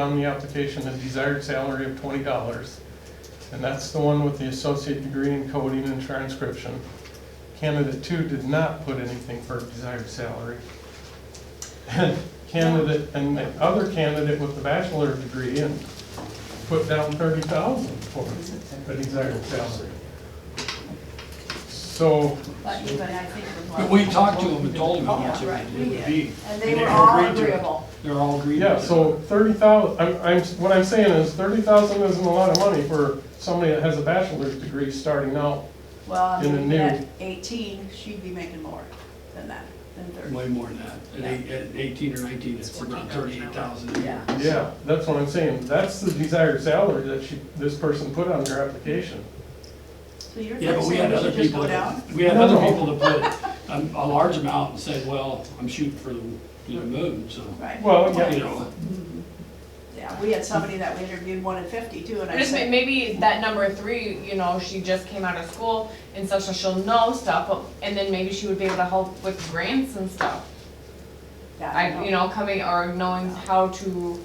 on the application a desired salary of twenty dollars. And that's the one with the associate degree in coding and transcription. Candidate two did not put anything for desired salary. And Candidate, and the other candidate with the bachelor degree and put down thirty thousand for the desired salary. So, But, but I think it was like. But we talked to them and told them how much it Right, would- we it would did. be. And they were all agreed to it. agreeable. They're all agreed. Yeah, to it. so thirty thousand, I'm, I'm, what I'm saying is thirty thousand isn't a lot of money for somebody that has a bachelor's degree starting out. Well, I In the mean, new- at eighteen, she'd be making more than that, than thirty. Way more than that. At eight- at eighteen or nineteen, it's around thirty-eight thousand a year. Yeah. Yeah, that's what I'm saying, that's the desired salary that she, this person put on her application. So you're Yeah, but we had saying other we should just people, go that- down? we had other No, no. people to put um, a large amount and said, well, I'm shooting for the, you know, moon, so, Right. Well, you know. Yeah, we had somebody that we interviewed wanted fifty too, and I I just mean, said, maybe that number three, you know, she just came out of school and stuff, so she'll know stuff, but- and then maybe she would be able to help with grants and stuff. yeah, I I, you know, coming or knowing how to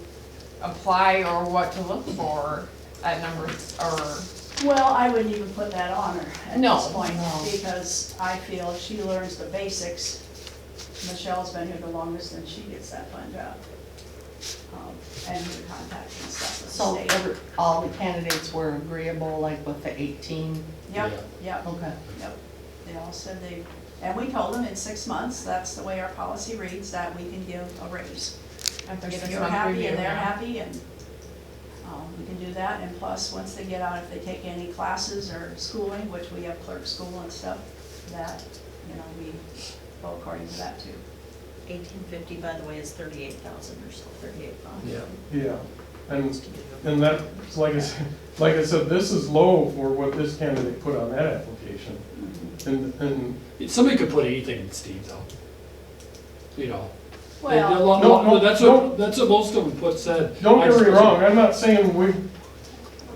apply or what to look for at numbers or, Well, I wouldn't even put that on her at No, this point, no. because I feel if she learns the basics, Michelle's been here the longest and she gets that fund job. Um, And her contacts and stuff with So uh, the state. every- all the candidates were agreeable, like with the 18? Yep, yep. Okay. Yep, they all said they, and we told them in six months, that's the way our policy reads, that we can give a raise. after If six you're month happy review. and they're yeah. happy and, um, we can do that, and plus, once they get out, if they take any classes or schooling, which we have clerk school and stuff, that, you know, we go according to that too. Eighteen fifty, by the way, is thirty-eight thousand or so, thirty-eight five. Yeah. Yeah, and, and that's, like I said, like I said, this is low for what this candidate put on that application. And, and, Somebody could put anything in Steve though. You know. They- they're Well, lo- No, no, That's no. what, that's what most of them put said. don't I get me suppose- wrong, I'm not saying we,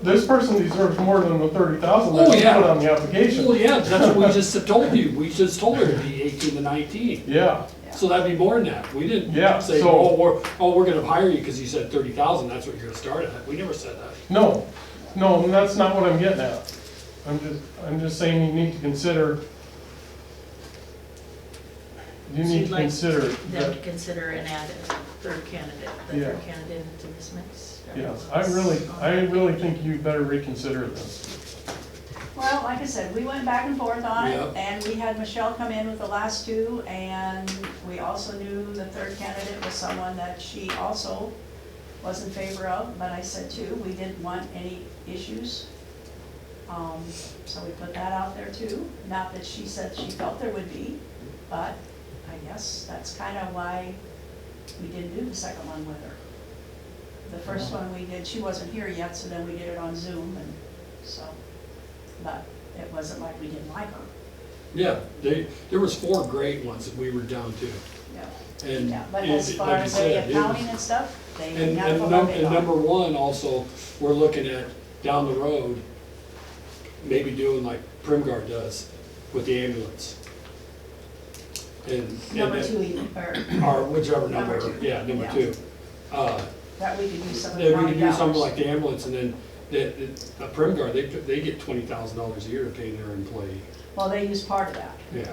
this person deserves more than the thirty thousand Oh, that she yeah. put on the application. Well, yeah, that's what we just told you. We just told her it'd be eighteen to nineteen. Yeah, So that'd be more than that. We didn't Yeah, say, so- oh, we're, oh, we're gonna hire you because you said thirty thousand, that's what you're gonna start at. We never said that. No, no, and that's not what I'm getting at. I'm just, I'm just saying you need to consider, you So need you'd to like consider Them that, to consider and add a third candidate, the Yeah. third candidate into this mix. yes, I really, I really think you better reconsider this. well, like I said, we went back and forth on it, Yep. and we had Michelle come in with the last two, and we also knew the third candidate was someone that she also was in favor of, but I said too, we didn't want any issues. Um, so we put that out there too, not that she said she felt there would be, but I guess that's kind of why we didn't do the second one with her. The first one we did, she wasn't here yet, so then we did it on Zoom and so, but it wasn't like we didn't like her, Yeah, they, there was four great ones that we were down to. yeah. And Yeah, but it- as far like you as the said, it was- accounting and stuff, they And, got and from num- and number one also, we're looking at down the road, maybe doing like Primgar does with the ambulance. And, and Number that- two, even, or or whichever Number number, two. yeah, number Yeah. two. Uh, that we could do some of the They we county could do something dollars. like the ambulance and then the, the, a Prim Guard, they, put- they get twenty thousand dollars a year to pay their employee. Well, they use part of that, Yeah.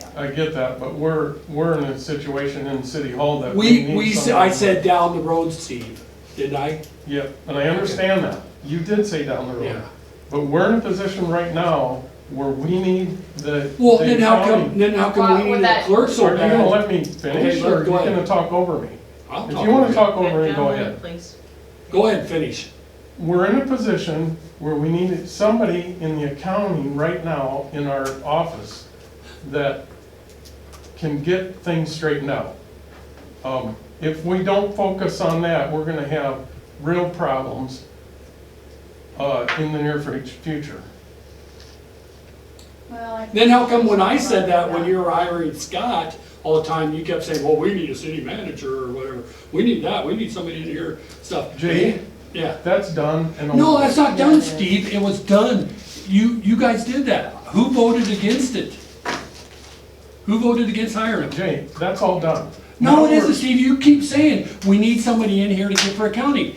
yeah. I get that, but we're, we're in a situation in City Hall that we We, need we, s- someone- I said down the road, Steve, didn't I? Yep, and I understand that. You did say down the road. Yeah. But we're in a position right now where we need the. Well, the then how come, county- then how Well, come we with need a that- clerk so Are you gonna bad? let me finish or go are you ahead. gonna talk over me? I'll If talk you wanna to you. talk over it, oh, go ahead. Please. Go ahead and finish. we're in a position where we need somebody in the accounting right now in our office that can get things straightened out. Um, If we don't focus on that, we're gonna have real problems uh, in the near fu- future. Well, I- Then how come when I said that, when you were hiring Scott, all the time, you kept saying, well, we need a city manager or whatever. We need that, we need somebody to hear stuff. Jay? Yeah. That's done and. over. No, that's not done, Steve, it was done. You, you guys did that. Who voted against it? Who voted against hiring him? Jay, that's all done. No, it Now isn't, we're- Steve, you keep saying, we need somebody in here to get for accounting.